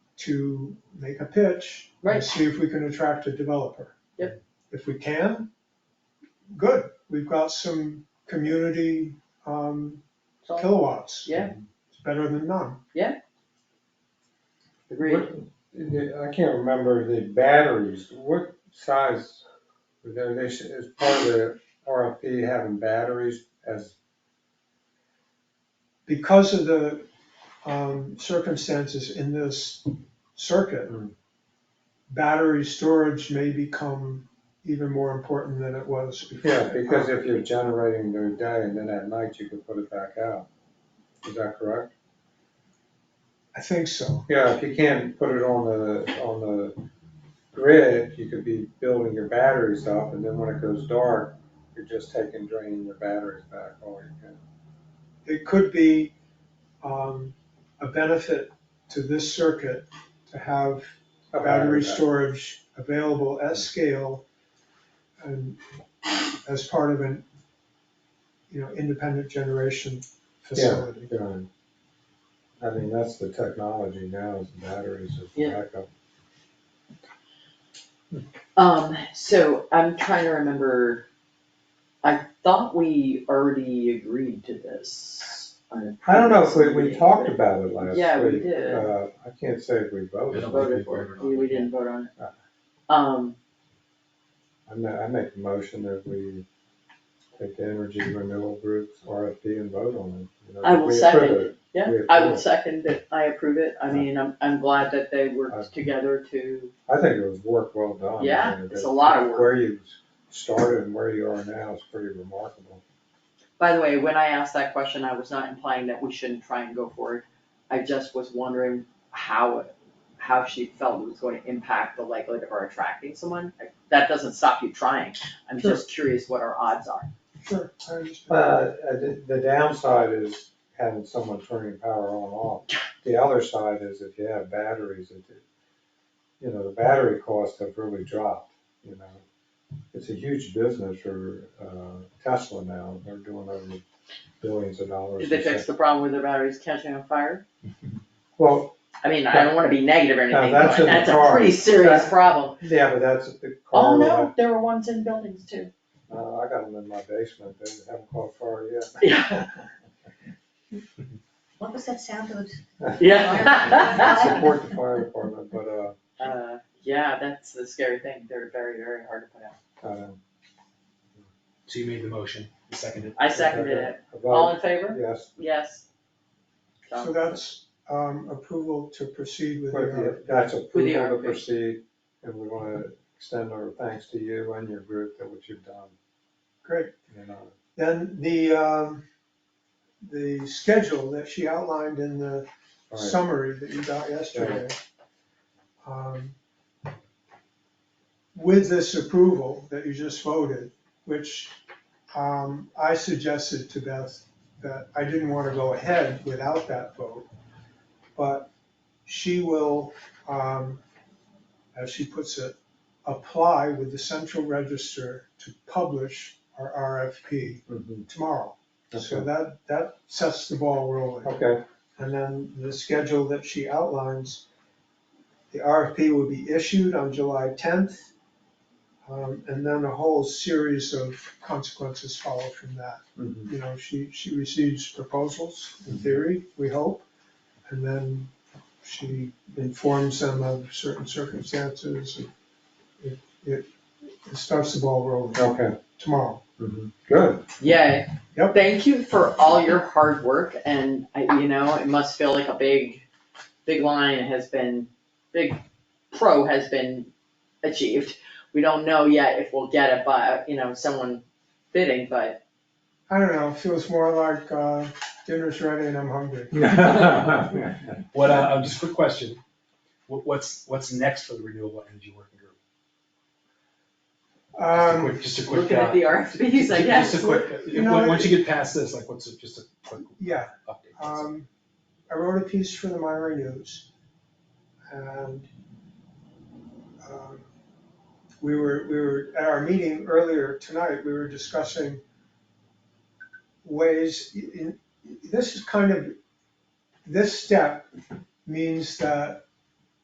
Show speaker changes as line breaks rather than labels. to make a pitch. and
Right.
See if we can attract a developer.
Yep.
If we can, good, we've got some community um,
So-
kilowatts.
Yeah.
It's better than none.
Agreed.
What- I can't remember the batteries, what size, were there? they, should- as part of the RFP, having batteries as,
Because of the um, circumstances in this circuit,
Hmm.
battery storage may become even more important than it was before.
yeah, because if you're generating during the day and then at night you can put it back out. Is that correct?
I think so.
Yeah, if you can't put it on the, on the grid, you could be building your batteries up and then when it goes dark, you're just taking, draining your batteries back all you can.
It could be um, a benefit to this circuit to have
A
battery
back.
storage available at scale and as part of an, you know, independent generation facility.
Yeah. I mean, that's the technology now is batteries as
Yeah.
backup.
Um, so I'm trying to remember, I thought we already agreed to this. on a
I don't know if we, we
previous
talked
meeting,
about it last week.
Yeah, we did.
Uh, I can't say if we voted.
but
about-
Voted for it, we, we didn't vote on it.
Ah.
Um,
I ma- I make a motion that we take the energy renewal groups RFP and vote on it. you know,
I will
uh, we
second.
approve it.
yeah,
We
I
approve
would
it. Uh,
second that, I approve it, I mean, I'm, I'm glad that they
Ah.
worked together to,
I think it was work well done. I
Yeah,
mean,
it's
it-
a lot of work.
Where you started and where you are now is pretty remarkable.
by the way, when I asked that question, I was not implying that we shouldn't try and go forward. I just was wondering how, how she felt it was going to impact the likelihood of our attracting someone, that doesn't stop you trying, I'm
Sure.
just curious what our odds are.
Sure, I understand.
Uh, uh, the the downside is having someone turning power on and off. The other side is if you have batteries, it, it- you know, the battery costs have really dropped, you know. It's a huge business for uh, Tesla now. They're doing over billions of dollars.
Did they
in
fix
sales.
the problem with their batteries catching on fire?
Well,
I mean, I don't wanna be negative or
No,
anything,
that's
but
in the
that's a
car.
pretty serious
That's-
problem.
yeah, but that's the car.
Oh, no, there were ones in buildings too.
Uh, I got them in my basement. They haven't caught fire
Yeah.
What was that sound of?
yet.
Yeah.
I Support the fire department, but, uh,
Uh, yeah, that's the scary thing, they're very, very hard to put out.
um,
So you made the motion, you seconded.
I seconded it,
I
all
vote
in favor?
yes,
Yes. Done.
So that's um, approval to proceed with the
With
RFP.
the- That's
Um, With the
approval
RFP.
to proceed, and we want to extend our thanks to you and your group that what you've done,
Great.
you know.
Then the, um, the schedule that she outlined in the
All right.
summary that you got yesterday. um, With this approval that you just voted, which um, I suggested to Beth that I didn't want to go ahead without that vote. But she will, um, as she puts it, apply with the central register to publish our RFP
Mhm.
tomorrow. So
Okay.
that, that sets the ball rolling.
Okay,
And then the schedule that she outlines, the RFP will be issued on July tenth. Um, and then a whole series of consequences follow from that.
Mhm.
You know, she, she receives proposals in theory, we hope. And then she informs them of certain circumstances. and It, it it starts the ball rolling
okay,
tomorrow.
Mhm. good.
Yay.
Yep.
Thank you for all your hard work and I, you know, it must feel like a big, big line has been, big pro has been achieved. We don't know yet if we'll get it by, you know, someone bidding, but
I don't know, it feels more like, uh, dinner's ready and I'm hungry.
What, uh, uh, just a quick question, what, what's, what's next for the renewable energy working group? Just a
Um,
quick, just a quick,
looking at
uh,
the RFPs, I guess.
Just a quick, uh,
You know,
on- once you get past this, like, what's, a- just a quick
yeah,
update?
Um, I wrote a piece for the Myra News and um, we were, we were, at our meeting earlier tonight, we were discussing ways, in, this is kind of, this step means that